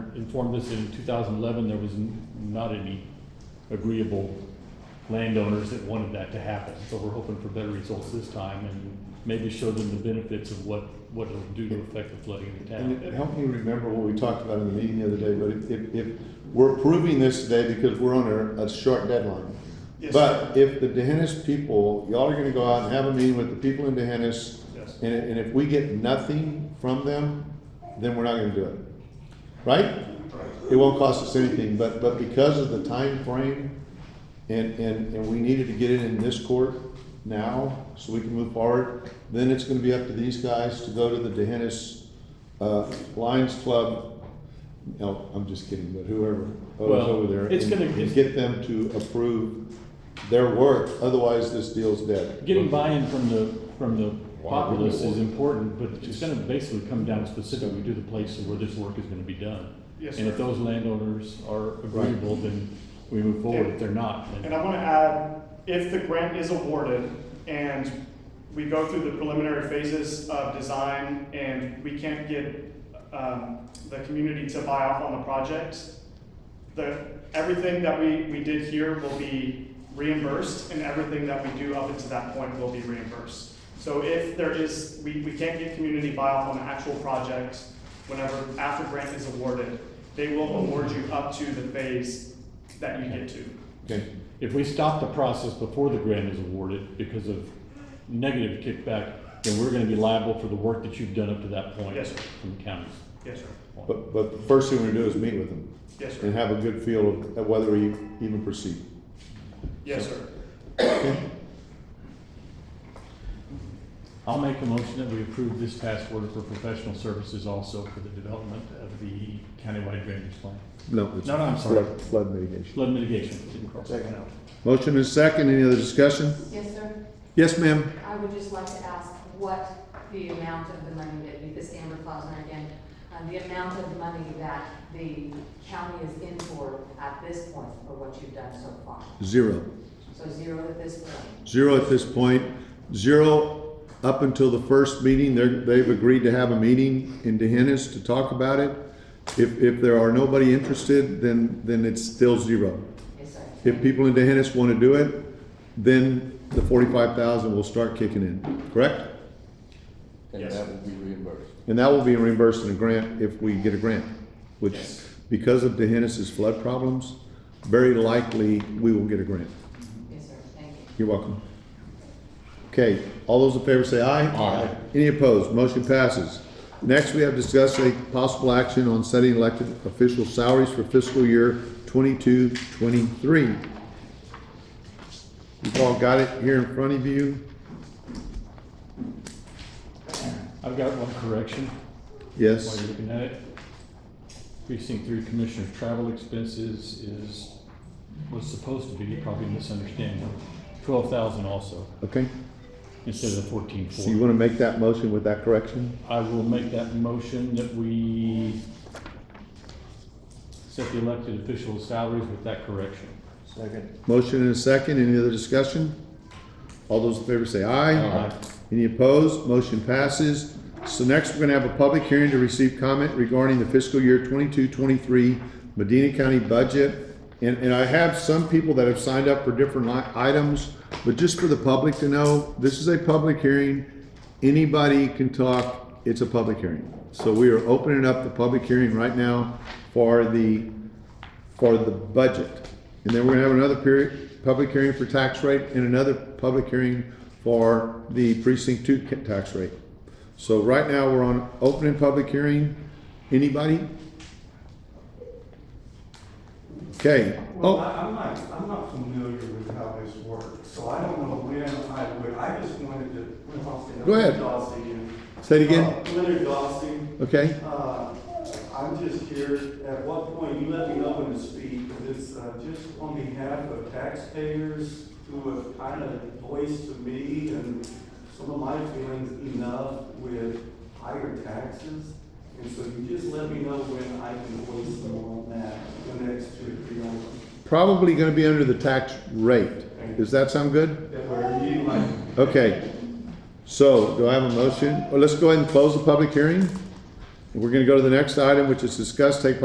informed us in two thousand eleven, there was n- not any agreeable landowners that wanted that to happen. So we're hoping for better results this time and maybe show them the benefits of what, what it'll do to affect the flooding in the And it- town. help me remember what we talked about in the meeting the other day, but if- if, if, we're approving this today because we're on a, a short deadline. Yes. But if the Dehennis people, y'all are gonna go out and have a meeting with the people in Dehennis, Yes. and, and if we get nothing from them, then we're not gonna do it. Right? It won't cost us anything, but, but because of the time frame, and, and, and we needed to get it in this court now, so we can move forward, then it's gonna be up to these guys to go to the Dehennis, uh, Lions Club, no, I'm just kidding, but whoever, Well, who's over there. it's and- gonna- and it's- Get them to approve their work, otherwise this deal's dead. Getting buy-in from the, from the populace is important, but it's gonna basically come down specifically to the place where this work is gonna be done. Yes, And if sir. those landowners are agreeable, then we move forward. If they're not, then. And I want to add, if the grant is awarded and we go through the preliminary phases of design and we can't get um, the community to buy off on the project, the, everything that we, we did here will be reimbursed and everything that we do up until that point will be reimbursed. So if there is, we, we can't get community buy-off on the actual project, whenever, after grant is awarded, they will award you up to the phase that you get to. Okay, If we stop the process before the grant is awarded because of negative kickback, then we're gonna be liable for the work that you've done up to that point Yes, sir. from the counties. Yes, sir. but, but the first thing we're gonna do is meet with them Yes, and sir. have a good feel of whether we even proceed. Yes, sir. I'll make a motion that we approve this task order for professional services also for the development of the countywide drainage plan. No, it's No, no, I'm sorry, flood- flood mitigation. flood mitigation, didn't cross that one out. Motion is second, any other discussion? Yes, sir. Yes, ma'am? I would just like to ask what the amount of the money that, you- this Amber Klausner again, uh, the amount of money that the county is in for at this point for what you've done so far. Zero. So zero at this point. Zero at this point, zero up until the first meeting, they're, they've agreed to have a meeting in Dehennis to talk about it. If, if there are nobody interested, then, then it's still zero. Yes, sir. If people in Dehennis want to do it, then the forty-five thousand will start kicking in, correct? And Yes. that will be reimbursed. And that will be reimbursed in a grant if we get a grant, which, Yes. because of Dehennis's flood problems, very likely we will get a grant. Yes, sir. Thank you. You're welcome. Okay, all those in favor say aye. Aye. Any opposed? Motion passes. Next, we have discussed a possible action on setting elected official salaries for fiscal year 22-23. twenty-three. You've all got it here in front of you? I've got one correction while Yes, you're looking at it. Precinct three commissioner's travel expenses is, was supposed to be, probably misunderstanding, twelve thousand also, okay. instead of the fourteen four. So you want to make that motion with that correction? I will make that motion that we set the elected officials' salaries with that correction. Second. Motion and a second, any other discussion? All those in favor say aye. Aye. Any opposed? Motion passes. So next, we're gonna have a public hearing to receive comment regarding the fiscal year 22-23 Medina County budget. And, and I have some people that have signed up for different li- items, but just for the public to know, this is a public hearing. Anybody can talk, it's a public hearing. So we are opening up the public hearing right now for the for the budget. And then we're gonna have another period, public hearing for tax rate and another public hearing for the precinct two ca- tax rate. So right now, we're on opening public hearing. Anybody? Okay, Well, oh, I- I'm not, I'm not familiar with how this works, so I don't know when I would, I just wanted to. well, I'll say- Go ahead. Dawson again. say it again, Uh, Leonard Dawson, okay? uh, I'm just here, at what point, you let me know when to speak, because it's uh, just on behalf of taxpayers who have kind of voiced to me and some of my feelings enough with higher taxes. And so you just let me know when I can voice them on that, the next two, or three items. Probably gonna be under the tax rate. Does that sound good? that were you like Okay, so do I have a motion? Well, let's go ahead and close the public hearing. We're gonna go to the next item, which is discuss, take